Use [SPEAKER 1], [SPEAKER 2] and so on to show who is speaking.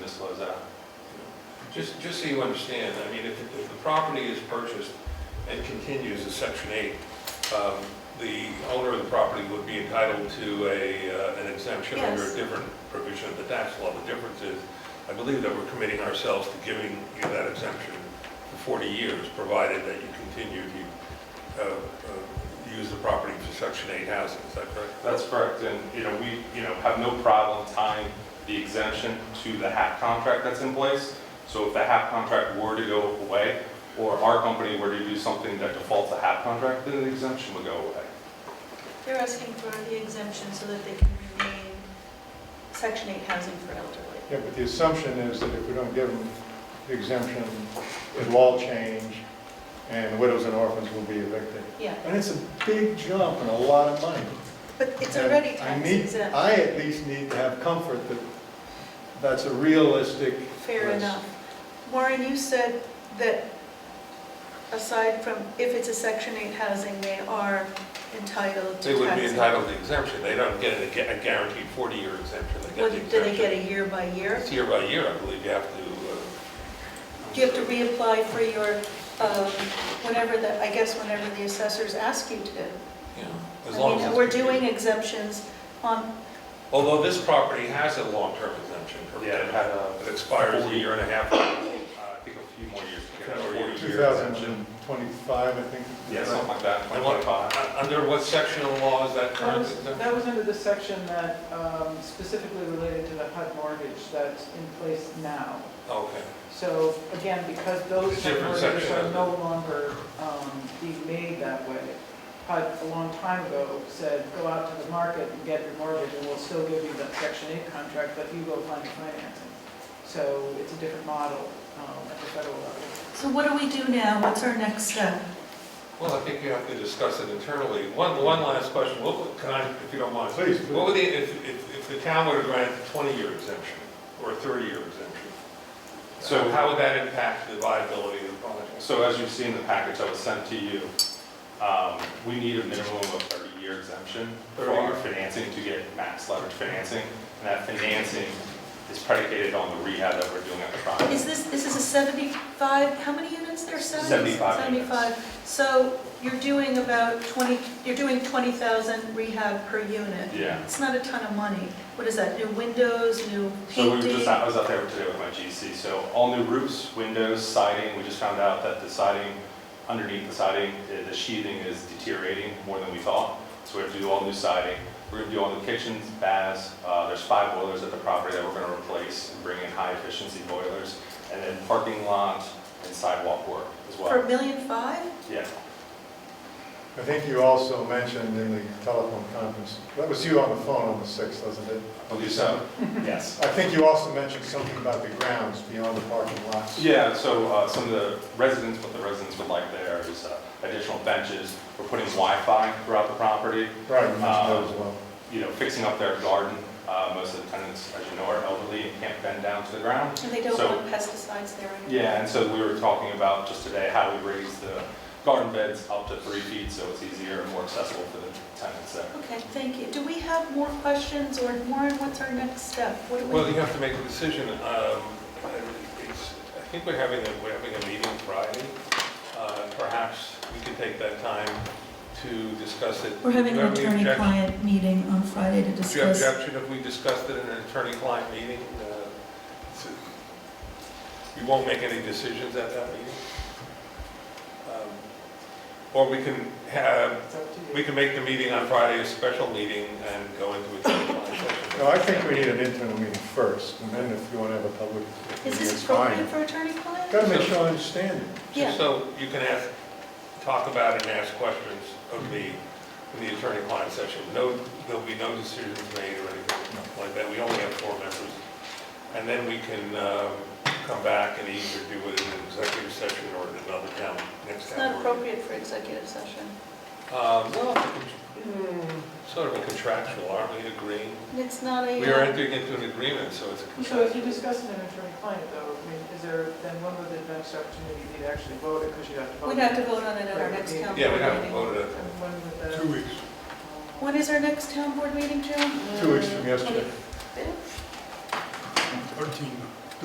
[SPEAKER 1] uh,
[SPEAKER 2] Just, just so you understand, I mean, if, if the property is purchased and continues as section eight, um, the owner of the property would be entitled to a, uh, an exemption under
[SPEAKER 3] Yes.
[SPEAKER 2] a different provision of the tax law. The difference is, I believe that we're committing ourselves to giving you that exemption for forty years, provided that you continue to, uh, uh, use the property for section eight housing, is that correct?
[SPEAKER 1] That's correct, and, you know, we, you know, have no problem tying the exemption to the HAP contract that's in place. So if the HAP contract were to go away, or our company were to do something that defaults the HAP contract, then the exemption would go away.
[SPEAKER 3] They're asking for the exemption so that they can remain Section 8 housing for elderly.
[SPEAKER 4] Yeah, but the assumption is that if we don't give them the exemption, it'll all change, and widows and orphans will be evicted.
[SPEAKER 3] Yeah,
[SPEAKER 4] And it's a big jump and a lot of money.
[SPEAKER 3] but it's
[SPEAKER 4] And
[SPEAKER 3] already
[SPEAKER 4] I
[SPEAKER 3] tax
[SPEAKER 4] need-
[SPEAKER 3] exempt,
[SPEAKER 4] I at least need to have comfort that that's a realistic.
[SPEAKER 3] fair
[SPEAKER 4] risk.
[SPEAKER 3] enough. Maureen, you said that aside from, if it's a Section 8 housing, they are entitled to tax.
[SPEAKER 2] They would be entitled to exemption, they don't get a gu- a guaranteed forty-year exemption, they get
[SPEAKER 3] What,
[SPEAKER 2] the exemption.
[SPEAKER 3] do they get a year by year?
[SPEAKER 2] It's year by year, I believe you have to. uh,
[SPEAKER 3] Do you have to reapply for your, um, whenever the, I guess whenever the assessors ask you to?
[SPEAKER 2] you know, as
[SPEAKER 3] I
[SPEAKER 2] long
[SPEAKER 3] mean,
[SPEAKER 2] as it's
[SPEAKER 3] We're
[SPEAKER 2] continued.
[SPEAKER 3] doing exemptions on,
[SPEAKER 2] Although this property has a long-term exemption,
[SPEAKER 1] Yeah, it
[SPEAKER 2] correct?
[SPEAKER 1] had a,
[SPEAKER 2] It expires a year and a half,
[SPEAKER 1] uh, I think a few more years. to go, or a year exemption.
[SPEAKER 4] 2025, I think.
[SPEAKER 1] Yeah, something like that,
[SPEAKER 2] And what-
[SPEAKER 1] 25.
[SPEAKER 2] Uh, under what section of law is that
[SPEAKER 5] That
[SPEAKER 2] current
[SPEAKER 5] was,
[SPEAKER 2] exemption?
[SPEAKER 5] that was under the section that um, specifically related to the HUD mortgage that's in place now.
[SPEAKER 2] Okay,
[SPEAKER 5] So again, because those
[SPEAKER 2] It's a
[SPEAKER 5] HUD
[SPEAKER 2] different
[SPEAKER 5] mortgages
[SPEAKER 2] section,
[SPEAKER 5] are
[SPEAKER 2] isn't it?
[SPEAKER 5] no longer um, being made that way, HUD a long time ago said, go out to the market and get your mortgage, and we'll still give you that section eight contract, but you go find financing. So it's a different model um, at the federal level.
[SPEAKER 3] so what do we do now? What's our next step?
[SPEAKER 2] well, I think you have to discuss it internally. One, one last question, what, would- can I, if you don't mind?
[SPEAKER 4] Please, please.
[SPEAKER 2] What would the, if, if, if the town were to grant a twenty-year exemption or a thirty-year exemption? So
[SPEAKER 1] So-
[SPEAKER 2] how would that impact the viability of the project?
[SPEAKER 1] So as you see in the package that was sent to you, um, we need a minimum of 30-year exemption for
[SPEAKER 2] 30
[SPEAKER 1] our financing to get max leverage financing. And that financing is predicated on the rehab that we're doing at the property.
[SPEAKER 3] Is this, this is a 75, how many units there, 70?
[SPEAKER 1] 75 units.
[SPEAKER 3] 75. So you're doing about 20, you're doing 20,000 rehab per unit.
[SPEAKER 1] Yeah.
[SPEAKER 3] It's not a ton of money. What is that, new windows, new
[SPEAKER 1] So we were
[SPEAKER 3] painting?
[SPEAKER 1] just, I was out there today with my GC, so all new roofs, windows, siding, we just found out that the siding, underneath the siding, the the sheathing is deteriorating more than we thought. So we have to do all new siding, we're gonna do all new kitchens, baths, uh, there's five boilers at the property that we're gonna replace and bring in high efficiency boilers. And then parking lot and sidewalk work as
[SPEAKER 3] For a
[SPEAKER 1] well.
[SPEAKER 3] million five?
[SPEAKER 1] Yeah,
[SPEAKER 4] I think you also mentioned in the telephone conference, that was you on the phone on the 6th, wasn't it?
[SPEAKER 1] I believe so, yes.
[SPEAKER 4] I think you also mentioned something about the grounds beyond the parking lots.
[SPEAKER 1] Yeah, so uh, some of the residents, what the residents would like there is uh, additional benches, we're putting Wi-Fi throughout the property.
[SPEAKER 4] Right, you mentioned that as well.
[SPEAKER 1] you know, fixing up their garden. Uh, Most of the tenants, as you know, are elderly and can't bend down to the ground.
[SPEAKER 3] And they don't
[SPEAKER 1] So-
[SPEAKER 3] want pesticides there anymore?
[SPEAKER 1] Yeah, and so we were talking about just today how we raise the garden beds up to three feet so it's easier and more accessible for the tenants there.
[SPEAKER 3] Okay, thank you. Do we have more questions, or Warren, what's our next step? What do we?
[SPEAKER 2] Well, you have to make a decision. Um, it's- I think we're having, a- we're having a meeting Friday. Uh, Perhaps we could take that time to discuss it.
[SPEAKER 6] We're having
[SPEAKER 2] Do you
[SPEAKER 6] an
[SPEAKER 2] have any objection-
[SPEAKER 6] attorney-client meeting on Friday to
[SPEAKER 2] Do you have
[SPEAKER 6] discuss.
[SPEAKER 2] objection if we discussed it in an attorney-client meeting? Uh, it's- You won't make any decisions at that meeting? Um, Or we can have,
[SPEAKER 5] It's up to you.
[SPEAKER 2] we can make the meeting on Friday a special meeting and go into attorney-client session.
[SPEAKER 4] No, I think we need an internal meeting first, and then if you want to have a public,
[SPEAKER 3] Is
[SPEAKER 4] meeting, it's
[SPEAKER 3] this
[SPEAKER 4] fine.
[SPEAKER 3] appropriate for attorney-client?
[SPEAKER 4] Got to make sure I understand it.
[SPEAKER 3] Yeah.
[SPEAKER 2] So you can ask, talk about and ask questions of me in the attorney-client session. No, there'll be no decisions made or anything like that. We only have four members. And then we can um, come back and either do it in an executive session or in another town, next
[SPEAKER 3] It's not
[SPEAKER 2] town. board.
[SPEAKER 3] appropriate for executive session.
[SPEAKER 2] Um, Well, hmm, sort of a contractual, aren't we agreeing?
[SPEAKER 3] And It's not a.
[SPEAKER 2] We are
[SPEAKER 3] uh,
[SPEAKER 2] entering into an agreement, so it's a
[SPEAKER 5] So if you
[SPEAKER 2] contract.
[SPEAKER 5] discuss it in attorney-client though, I mean, is there, then when would the next opportunity be to actually vote it, because you'd have to vote?
[SPEAKER 3] We'd have to vote on it at our next town board meeting.
[SPEAKER 2] Yeah, we haven't voted
[SPEAKER 5] And
[SPEAKER 2] it.
[SPEAKER 5] when would the?
[SPEAKER 4] Two weeks.
[SPEAKER 3] When is our next town board meeting, Joe?
[SPEAKER 4] Two weeks from yesterday.
[SPEAKER 3] Twenty-fifth?
[SPEAKER 4] Thirteen.